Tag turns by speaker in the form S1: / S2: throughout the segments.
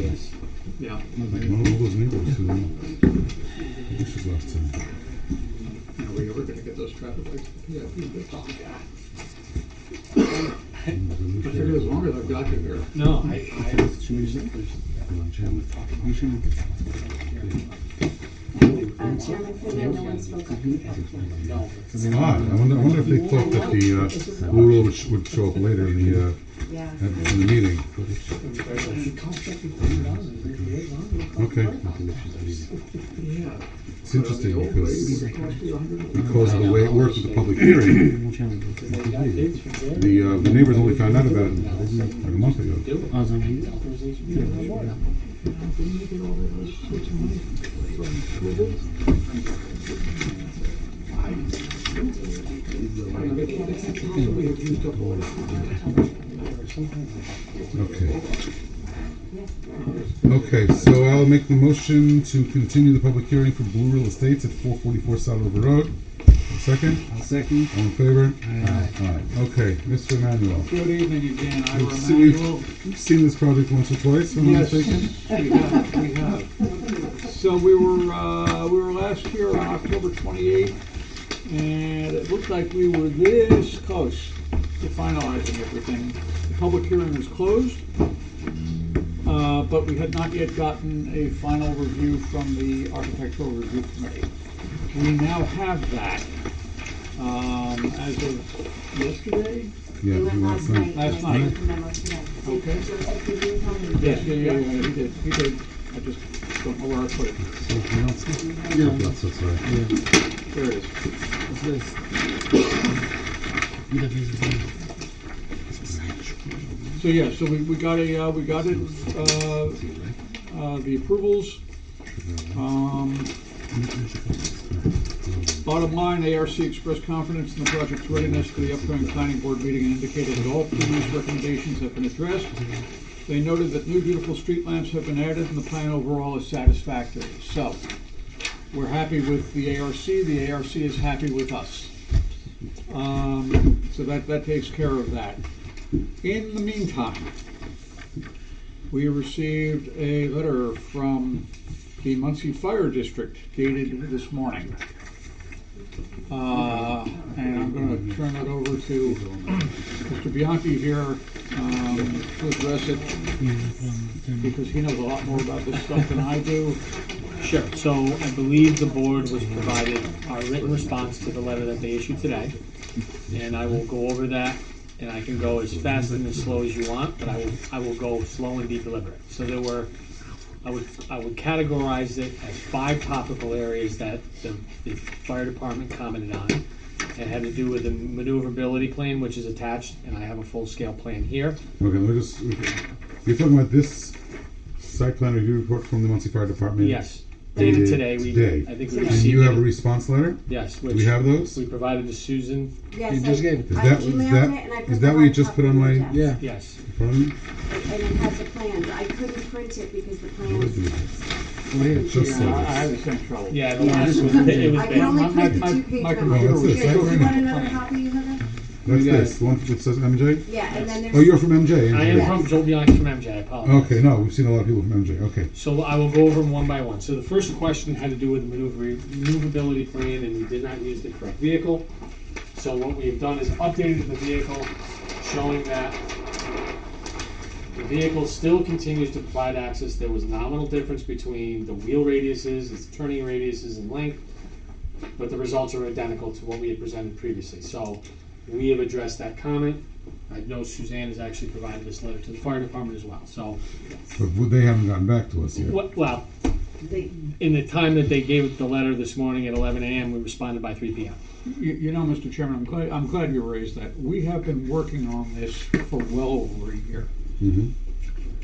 S1: Yes.
S2: Yeah,
S1: Mam logo z niego, czyli wyższy klawce.
S2: now we were gonna get those traffic lights for PIP, but I figured as long as I've got you here.
S3: No, I, I was
S4: Um, Chairman, for that, no one spoke up.
S3: no.
S1: Odd, I wonder, I wonder if they thought that the uh, Lula would, sh- would show up later in the, uh,
S4: Yeah.
S1: at- in the meeting. Okay,
S2: Yeah.
S1: it's interesting
S2: But the old
S1: because,
S2: lady was supposed to be 100.
S1: because of the way it worked with the public hearing, the, uh, the neighbors only found out about it like a month ago. Okay. Okay, so I'll make the motion to continue the public hearing for Blue Real Estates at four forty-four Saddle River Road. Second,
S3: I'll second.
S1: all in favor? Aye. Okay, Mr. Emmanuel,
S2: Good evening again, I
S1: Good to see you.
S2: Emanuel.
S1: you've seen this project once or twice, if I'm not
S2: Yes,
S1: mistaken?
S2: we have, we have. So we were, uh, we were last here on October 28th, and it looked like we were this close to finalizing everything. The public hearing was closed, uh, but we had not yet gotten a final review from the Architectural Review Committee. We now have that, um, as of yesterday,
S1: Yeah,
S4: It
S1: you want
S4: went last
S1: some?
S4: night.
S2: Last night.
S4: I sent the memo today.
S2: Okay.
S4: Joseph, did you tell me?
S2: Yes, yeah, yeah, yeah, he did, he did. I just don't know where I put it.
S1: Yeah, That's, that's right.
S2: There it is. So, yeah, so we, we got a, uh, we got it, uh, uh, the approvals. Um, bottom line, ARC expressed confidence in the project's readiness for the upcoming planning board meeting and indicated that all previous recommendations have been addressed. They noted that new beautiful street lamps have been added and the plan overall is satisfactory. So, we're happy with the ARC, the ARC is happy with us. Um, so that, that takes care of that. In the meantime, we received a letter from the Muncie Fire District dated this morning. Uh, and I'm gonna turn it over to Mr. Bianchi here, um, to address it, because he knows a lot more about this stuff than I do.
S3: Sure, so I believe the board was provided our written response to the letter that they issued today. And I will go over that, and I can go as fast and as slow as you want, but I will, I will go slow and be deliberate. So there were, I would, I would categorize it as five topical areas that the, the fire department commented on. It had to do with the maneuverability plan, which is attached, and I have a full-scale plan here.
S1: Okay, let me just, okay. you're talking about this site plan review report from the Muncie Fire Department?
S3: Yes, dated today,
S1: Today.
S3: we, I think we
S1: And you have a
S3: received it,
S1: response letter?
S3: yes,
S1: Do we
S3: which
S1: have those?
S3: we provided to Susan,
S4: Yes,
S5: You just
S4: I-
S5: gave it.
S1: Is
S4: I
S1: that- is
S4: emailed
S1: that-
S4: it and I
S1: is
S4: put
S1: that
S4: the
S1: what you
S4: hard
S1: just put on
S4: copy
S1: my-
S4: in the
S5: Yeah,
S3: yes.
S1: In front of me?
S4: desk. And it has the plans, I couldn't print it because the
S1: What is
S4: plans.
S1: it?
S5: well, here.
S1: Just
S2: Yeah,
S1: so
S2: I I
S1: this.
S2: had the same trouble.
S3: Yeah, the last
S5: this
S3: one, it Oh, was
S4: I can
S3: bad.
S4: only print the
S2: my-
S4: two page
S2: my
S4: one.
S2: computer
S1: was
S4: Here,
S1: set
S4: Do you want
S1: right
S4: another copy, another?
S1: That's
S5: got
S1: this, the one that says MJ?
S4: Yeah, and then there's.
S1: Oh, you're from MJ?
S3: I
S1: aren't
S3: am
S1: you?
S3: from, Joe Bianchi from MJ, I apologize.
S1: Okay, no, we've seen a lot of people from MJ, okay.
S3: So I will go over them one by one. So the first question had to do with the maneuver- maneuverability plan, and we did not use the correct vehicle. So what we have done is updated the vehicle, showing that the vehicle still continues to provide access. There was nominal difference between the wheel radiuses, its turning radiuses and length, but the results are identical to what we had presented previously. So we have addressed that comment. I know Suzanne has actually provided this letter to the fire department as well, so.
S1: But w- they haven't gotten back to us yet.
S3: Wh- Well,
S4: They-
S3: in the time that they gave the letter this morning at eleven AM, we responded by three PM.
S2: You, you know, Mr. Chairman, I'm glad, I'm glad you raised that. We have been working on this for well over a year.
S1: Mhm.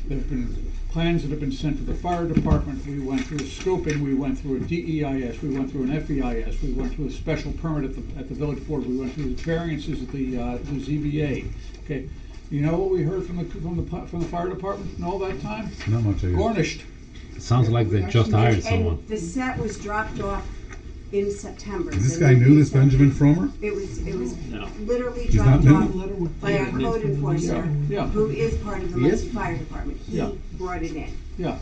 S2: There have been plans that have been sent to the fire department. We went through scoping, we went through a DEIS, we went through an FEIS, we went through a special permit at the, at the village board, we went through the variances at the, uh, the ZBA. Okay, you know what we heard from the, from the, pu- from the fire department in all that time?
S1: Not much, I guess.
S2: Garnished.
S6: Sounds like they just hired
S4: And-
S6: someone.
S4: And the set was dropped off in September.
S1: Is this
S4: The
S1: guy new,
S4: lease
S1: this
S4: that-
S1: Benjamin Fromer?
S4: It was, it was
S5: No.
S4: literally
S1: He's
S4: dropped
S1: not
S4: off
S1: new?
S4: by our code enforcer,
S2: Yeah.
S4: who is part of the
S5: He is?
S4: Muncie Fire Department. He
S2: Yeah.
S4: brought it in.
S2: Yeah.